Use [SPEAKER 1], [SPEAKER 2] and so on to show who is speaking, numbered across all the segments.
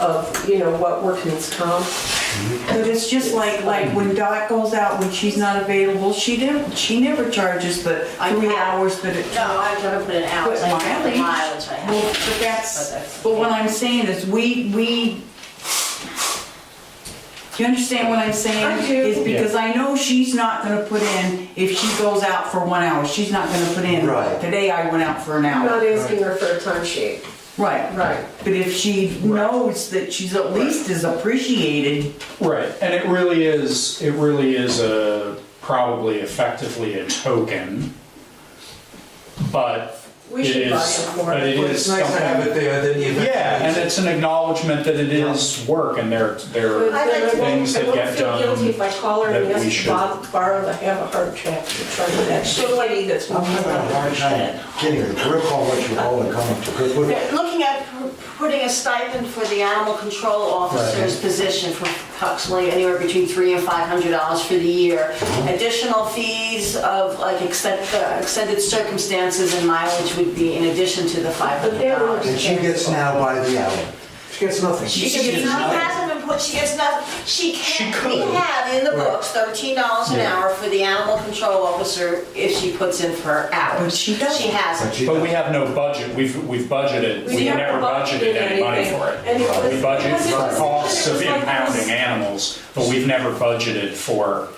[SPEAKER 1] of, you know, what workman's comp.
[SPEAKER 2] But it's just like, like when Dot goes out, when she's not available, she didn't, she never charges the
[SPEAKER 3] I
[SPEAKER 2] three
[SPEAKER 3] have-
[SPEAKER 2] hours that it.
[SPEAKER 3] No, I don't put an hours, I have the mileage I
[SPEAKER 2] Well,
[SPEAKER 3] have.
[SPEAKER 2] but that's,
[SPEAKER 3] But
[SPEAKER 2] but what I'm saying is, we, we, you understand what I'm saying?
[SPEAKER 1] I do.
[SPEAKER 2] Is because I know she's not gonna put in, if she goes out for one hour, she's not gonna put in,
[SPEAKER 4] Right.
[SPEAKER 2] today I went out for an
[SPEAKER 1] I'm
[SPEAKER 2] hour.
[SPEAKER 1] not asking her for a timesheet.
[SPEAKER 2] Right,
[SPEAKER 1] Right.
[SPEAKER 2] but if she knows that she's at least is appreciated,
[SPEAKER 5] Right, and it really is, it really is a, probably effectively a token, but
[SPEAKER 1] We
[SPEAKER 5] it
[SPEAKER 1] should buy
[SPEAKER 5] is,
[SPEAKER 1] it more.
[SPEAKER 5] but it
[SPEAKER 4] But
[SPEAKER 5] is
[SPEAKER 4] it's nice to have it
[SPEAKER 5] something.
[SPEAKER 4] there, then you eventually.
[SPEAKER 5] Yeah, and it's an acknowledgement that it is work and they're,
[SPEAKER 1] But
[SPEAKER 5] they're,
[SPEAKER 1] then I won't-
[SPEAKER 5] Things that
[SPEAKER 1] I
[SPEAKER 5] get
[SPEAKER 1] won't feel
[SPEAKER 5] done
[SPEAKER 1] guilty if I call her and
[SPEAKER 5] that we
[SPEAKER 1] ask to
[SPEAKER 5] should-
[SPEAKER 1] bob- borrow the have a heart check to try to that shit lady that's
[SPEAKER 4] I'm
[SPEAKER 1] walking
[SPEAKER 4] having a
[SPEAKER 1] around.
[SPEAKER 4] hard time getting a grip on what you all are coming to, because we're
[SPEAKER 3] They're Looking at p- putting a stipend for the animal control officer's position for approximately anywhere between three and five hundred dollars for the year. Additional fees of like extended, extended circumstances and mileage would be in addition to the five hundred dollars.
[SPEAKER 4] And she gets now by the hour. She gets nothing.
[SPEAKER 3] She gets, she hasn't been put, she gets nothing, she
[SPEAKER 5] She
[SPEAKER 3] can't,
[SPEAKER 5] could.
[SPEAKER 3] we have in the
[SPEAKER 4] Right.
[SPEAKER 3] books thirteen dollars an hour for the animal control officer if she puts in her hours.
[SPEAKER 2] But she doesn't.
[SPEAKER 3] She hasn't.
[SPEAKER 4] But she
[SPEAKER 5] but we
[SPEAKER 4] doesn't.
[SPEAKER 5] have no budget, we've, we've budgeted,
[SPEAKER 1] We
[SPEAKER 5] we've
[SPEAKER 1] never
[SPEAKER 5] never budgeted any money
[SPEAKER 1] anything.
[SPEAKER 5] for
[SPEAKER 1] And it
[SPEAKER 5] it. We
[SPEAKER 1] was-
[SPEAKER 5] budget
[SPEAKER 1] because it
[SPEAKER 5] for
[SPEAKER 1] was-
[SPEAKER 5] costs
[SPEAKER 1] it
[SPEAKER 5] of
[SPEAKER 1] was like
[SPEAKER 5] impounding
[SPEAKER 1] this-
[SPEAKER 5] animals, but we've never budgeted for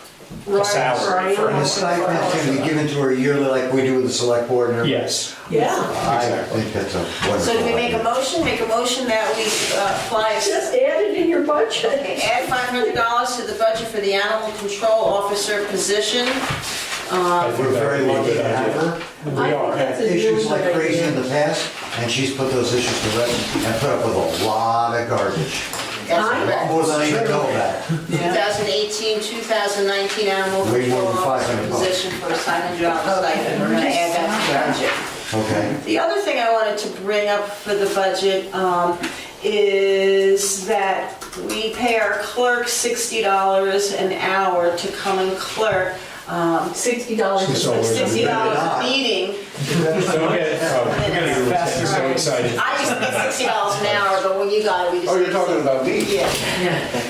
[SPEAKER 5] a salary for
[SPEAKER 4] And the
[SPEAKER 5] it.
[SPEAKER 4] stipend can be given to her yearly like we do with the select board and everything.
[SPEAKER 5] Yes.
[SPEAKER 1] Yeah.
[SPEAKER 4] I think that's a wonderful.
[SPEAKER 3] So do we make a
[SPEAKER 4] idea.
[SPEAKER 3] motion, make a motion that we uh, apply,
[SPEAKER 1] Just add it in your budget.
[SPEAKER 3] okay, add five hundred dollars to the budget for the animal control officer position?
[SPEAKER 5] I think
[SPEAKER 4] We're
[SPEAKER 5] that
[SPEAKER 4] very
[SPEAKER 5] would be a
[SPEAKER 4] lucky
[SPEAKER 5] good
[SPEAKER 4] to have
[SPEAKER 5] idea.
[SPEAKER 4] her.
[SPEAKER 5] We are.
[SPEAKER 4] had issues like crazy in the past, and she's put those issues to rest and put up with a lot of garbage.
[SPEAKER 3] That's
[SPEAKER 4] More than I even know about.
[SPEAKER 3] correct. 2018, 2019 animal
[SPEAKER 4] Way more
[SPEAKER 3] control
[SPEAKER 4] than
[SPEAKER 3] officer
[SPEAKER 4] 500 bucks.
[SPEAKER 3] position for a five hundred dollar stipend, we're gonna add that to the budget.
[SPEAKER 4] Okay.
[SPEAKER 3] The other thing I wanted to bring up for the budget um, is that we pay our clerk $60 an hour to come and clerk, um,
[SPEAKER 1] Sixty dollars.
[SPEAKER 4] Oh,
[SPEAKER 5] She's always
[SPEAKER 3] $60 a meeting.
[SPEAKER 5] Don't get, oh, I'm getting faster, so excited.
[SPEAKER 3] I used to pay $60 an hour, but when you got it, we just...
[SPEAKER 6] Oh, you're talking about me?
[SPEAKER 3] Yeah.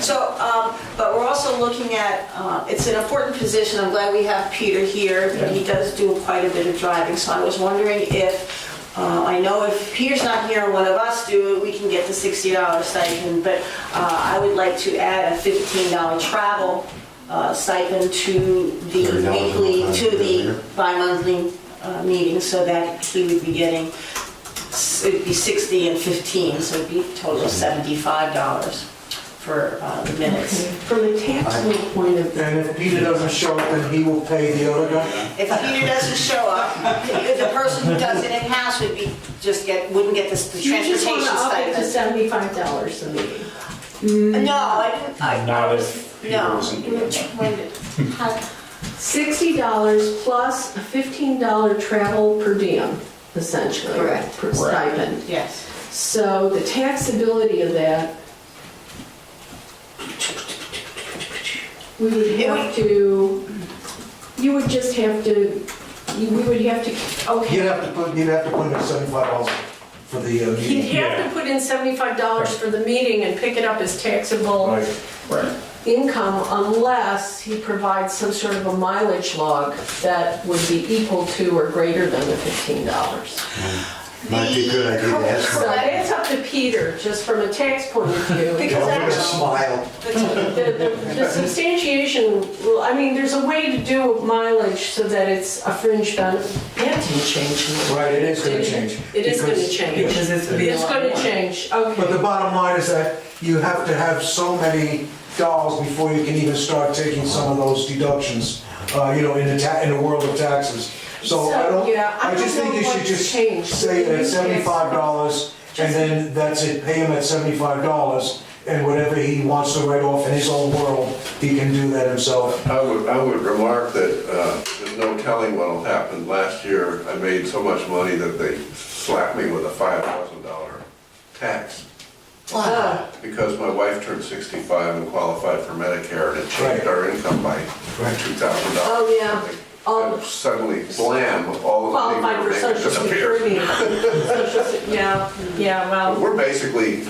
[SPEAKER 3] So, um, but we're also looking at, uh, it's an important position, I'm glad we have Peter here, he does do quite a bit of driving, so I was wondering if, uh, I know if Peter's not here and one of us do it, we can get the sixty dollar stipend, but uh, I would like to add a fifteen dollar travel uh, stipend to the
[SPEAKER 4] $30
[SPEAKER 3] weekly,
[SPEAKER 4] overtime
[SPEAKER 3] to the
[SPEAKER 4] earlier.
[SPEAKER 3] bi-monthly uh, meeting, so that he would be getting, s- it'd be 60 and 15, so it'd be a total of $75 for uh, the minutes.
[SPEAKER 1] From a taxable point of view.
[SPEAKER 6] And if Peter doesn't show up, then he will pay the other guy?
[SPEAKER 3] If Peter doesn't show up, the person who does it in-house would be, just get, wouldn't get this- the
[SPEAKER 1] You just
[SPEAKER 3] transportation
[SPEAKER 1] want to up it to
[SPEAKER 3] stipend.
[SPEAKER 1] seventy-five dollars a meeting.
[SPEAKER 3] No, I didn't, I,
[SPEAKER 5] Not
[SPEAKER 3] I
[SPEAKER 5] if
[SPEAKER 3] was,
[SPEAKER 5] Peter
[SPEAKER 3] no.
[SPEAKER 5] wasn't doing it.
[SPEAKER 3] When did- how-
[SPEAKER 1] Sixty dollars plus a fifteen dollar travel per diem, essentially.
[SPEAKER 3] Correct.
[SPEAKER 1] Per stipend.
[SPEAKER 3] Yes.
[SPEAKER 1] So the taxability of that, we would have to, you would just have to, you- we would have to,
[SPEAKER 6] You'd
[SPEAKER 1] okay.
[SPEAKER 6] have to put, you'd have to put in seventy-five dollars for the uh,
[SPEAKER 1] You'd
[SPEAKER 6] meeting.
[SPEAKER 1] have to put in seventy-five dollars for the meeting and pick it up as taxable
[SPEAKER 6] Right.
[SPEAKER 5] Right.
[SPEAKER 1] income unless he provides some sort of a mileage log that would be equal to or greater than the fifteen dollars.
[SPEAKER 4] Might be a good idea to ask
[SPEAKER 1] So
[SPEAKER 4] her.
[SPEAKER 1] that's up to Peter, just from a tax point of view.
[SPEAKER 3] Because
[SPEAKER 4] Don't give us a
[SPEAKER 3] actually,
[SPEAKER 4] smile.
[SPEAKER 1] The- The the substantiation, well, I mean, there's a way to do mileage so that it's a fringe benefit. That didn't change.
[SPEAKER 6] Right, it is gonna change.
[SPEAKER 1] It is gonna
[SPEAKER 6] because-
[SPEAKER 1] change.
[SPEAKER 6] Yeah.
[SPEAKER 2] because it's. a
[SPEAKER 1] It's
[SPEAKER 2] lot
[SPEAKER 1] going to
[SPEAKER 2] more.
[SPEAKER 1] change,
[SPEAKER 6] But the
[SPEAKER 1] okay.
[SPEAKER 6] bottom line is that you have to have so many dollars before you can even start taking some of those deductions, uh, you know, in the ta, in the world of taxes. So I
[SPEAKER 1] So,
[SPEAKER 6] don't,
[SPEAKER 1] yeah, I
[SPEAKER 6] I just
[SPEAKER 1] don't
[SPEAKER 6] think you
[SPEAKER 1] know
[SPEAKER 6] should
[SPEAKER 1] what's
[SPEAKER 6] just
[SPEAKER 1] changed.
[SPEAKER 6] say
[SPEAKER 1] Maybe
[SPEAKER 6] that
[SPEAKER 1] it's-
[SPEAKER 6] seventy-five dollars, and then that's it, pay him at seventy-five dollars, and whatever he wants to write off in his own world, he can do that himself.
[SPEAKER 7] I would, I would remark that uh, there's no telling what'll happen. Last year, I made so much money that they slapped me with a $5,000 tax
[SPEAKER 1] Uh,
[SPEAKER 7] because my wife turned 65 and qualified for Medicare and it changed
[SPEAKER 6] Right.
[SPEAKER 7] our income by
[SPEAKER 6] Right.
[SPEAKER 7] $2,000.
[SPEAKER 1] Oh, yeah. All-
[SPEAKER 7] And suddenly, blam, all the money
[SPEAKER 1] Qualified
[SPEAKER 7] we were
[SPEAKER 1] for
[SPEAKER 7] making
[SPEAKER 1] social
[SPEAKER 7] disappeared.
[SPEAKER 1] security. Social se- Yeah, yeah, well.
[SPEAKER 7] We're basically